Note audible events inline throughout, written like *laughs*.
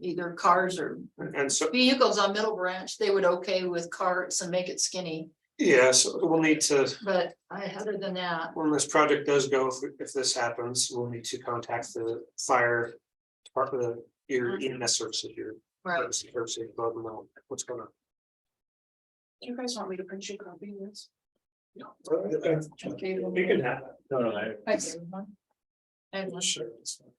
either cars or And and so, vehicles on Middle Branch, they would okay with carts and make it skinny. yeah, so we'll need to, But I, other than that, when this project does go, if, if this happens, we'll need to contact the fire. Department, of your EMS services, your. Mm-hmm. right, emergency services, let them know what's going on. You guys want me to print you a copy of this? okay. We can have. No, no, I. I see one. I have one. Sure. it's fine.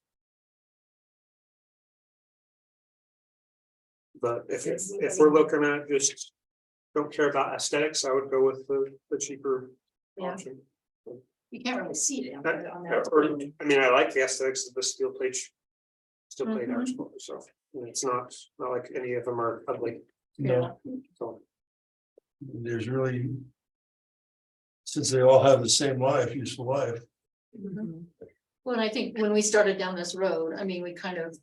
But if, if if we're looking at just, don't care about aesthetics, I would go with the, the cheaper Yeah. option. You can't really see it on That- on Or, that. I mean, I like the aesthetics of the steel plate. sh- Steel plate Mhm. arch, so it's not, not like any of them are ugly, Yeah. so. there's really. Since they all have the same life, useful life. Mm-hmm. Mhm. Well, and I think when we started down this road, I mean, we kind of.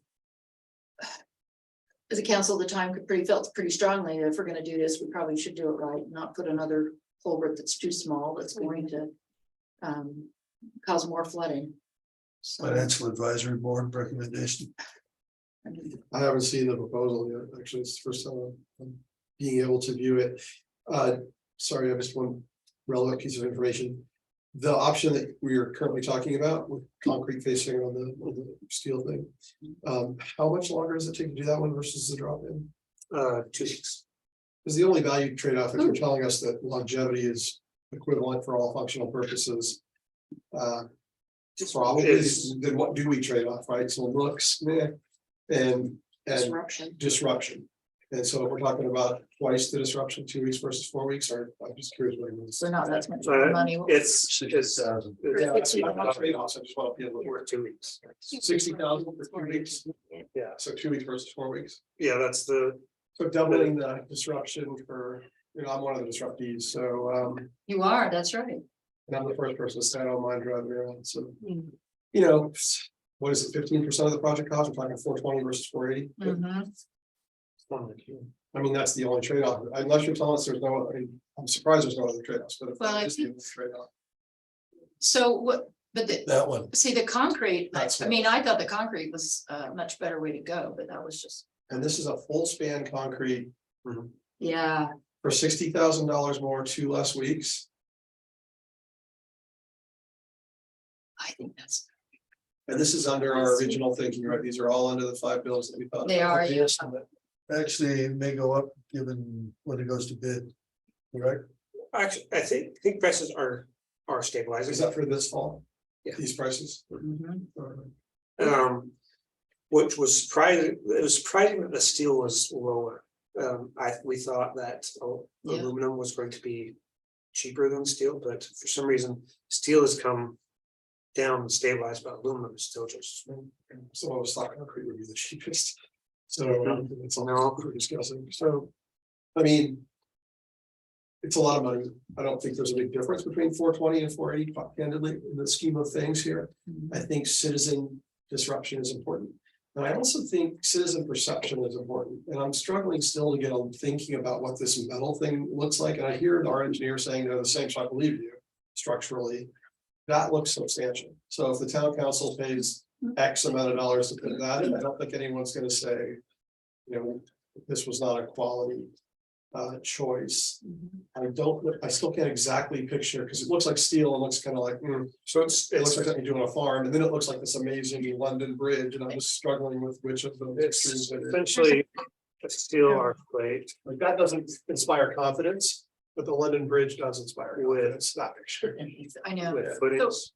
As a council at the time, could pretty felt pretty strongly that if we're gonna do this, we probably should do it right, not put another culvert that's too small, that's going Mm-hmm. to. Um, cause more flooding. So. Financial Advisory Board recommendation. I mean, I haven't seen the proposal yet, actually, it's the first time I'm being able to view it. Uh, sorry, I missed one relevant piece of information. The option that we are currently talking about with concrete facing on the, on the steel thing. Um, how much longer does it take to do that one versus the drop in? Uh, two weeks, Is the only value trade-off if you're telling us that longevity is equivalent for all functional purposes. Uh, Probably, It's- then what do we trade off, right? So looks, yeah, and, and Disruption. disruption. And so we're talking about twice the disruption, two weeks versus four weeks, or I'm just curious. what it means. So not that much Uh, money. it's, Six it's. thousand. it's- Yeah, that's- I'm not trading offs, I just want to be a little. We're two weeks, Sixty thousand for two weeks, yeah, so two weeks versus four weeks. yeah, that's the, So doubling the disruption for, you know, I'm one of the disruptees, so, um, You are, that's right. and I'm the first person to stand on mine driving around, so. Mm-hmm. You know, what is it, fifteen percent of the project cost, we're talking four twenty versus four eighty? Mhm. I mean, that's the only trade-off, unless you're telling us there's no, I mean, I'm surprised there's no other trade-offs, but if Well, I that is the think- only trade-off. So what, but the, That one, See, the concrete, I That's I it. mean, I thought the concrete was a much better way to go, but that was just, And this is a full span concrete yeah, for sixty thousand dollars more, two less weeks. I think that's, And this is under our original thinking, right? These are all under the five bills that we thought. they are, yeah. actually it may go up given when it goes to bid. Correct? actually, I think, I think prices are, are stabilizing. Is that for this fall? Yeah. These prices? Mhm. Um, which was surprising, it was surprising that the steel was lower. Um, I, we thought that al- Yeah. aluminum was going to be cheaper than steel, but for some reason, steel has come down and stabilized, but aluminum is still just, So I was thought concrete would be the *laughs* cheapest. So um, it's all No. we're discussing, so. I mean. It's a lot of money. I don't think there's a big difference between four twenty and four eighty candidly in the scheme of things here. Mm-hmm. I think citizen disruption is important. And I also think citizen perception is important, and I'm struggling still to get on thinking about what this metal thing looks like, and I hear our engineer saying they're the same, so I believe you structurally. That looks substantial, so if the town council pays X amount of dollars to put that in, I don't think anyone's gonna say. You know, this was not a quality uh choice, Mhm. I don't, I still can't exactly picture, because it looks like steel and looks kind of like, hmm, so it's, it looks it's, like something you do on a farm, and then it looks like this amazing London Bridge, and I'm just struggling with which of the it's pictures it is. essentially a steel arc plate Like, that doesn't inspire confidence, but the London Bridge does inspire With- confidence, that picture. Mm-hmm. I know, with footings.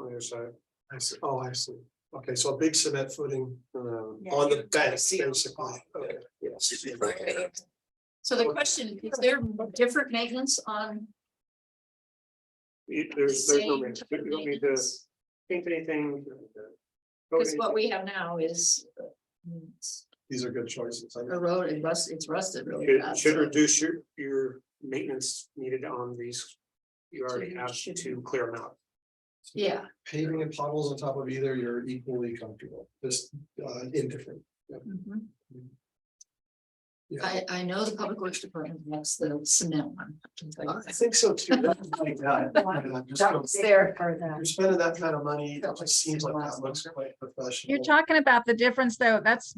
On your side, I see, oh, I see, okay, so a big cement footing um, Yeah. on the bank, See on the basically, okay. yes, so the question, is there different maintenance on You- the there's, there's no, same? reason. type you of don't need to maintenance? paint anything. Cause what we have now is uh, it's These are good choices, I know. eroded, rust, it's rusted really Should, bad. should so- reduce your, your maintenance needed on these. You already you have should- to clear them out. Yeah, paving and potholes on top of either, you're equally comfortable, just uh indifferent. Mhm. Yeah. I, I know the public works department wants the cement one. I can tell you that. think so too. Like that. And I'm just That gonna- was there for You're that. spending that kind of money, Felt it like just seems like last that looks quite professional. You're talking about the difference though, that's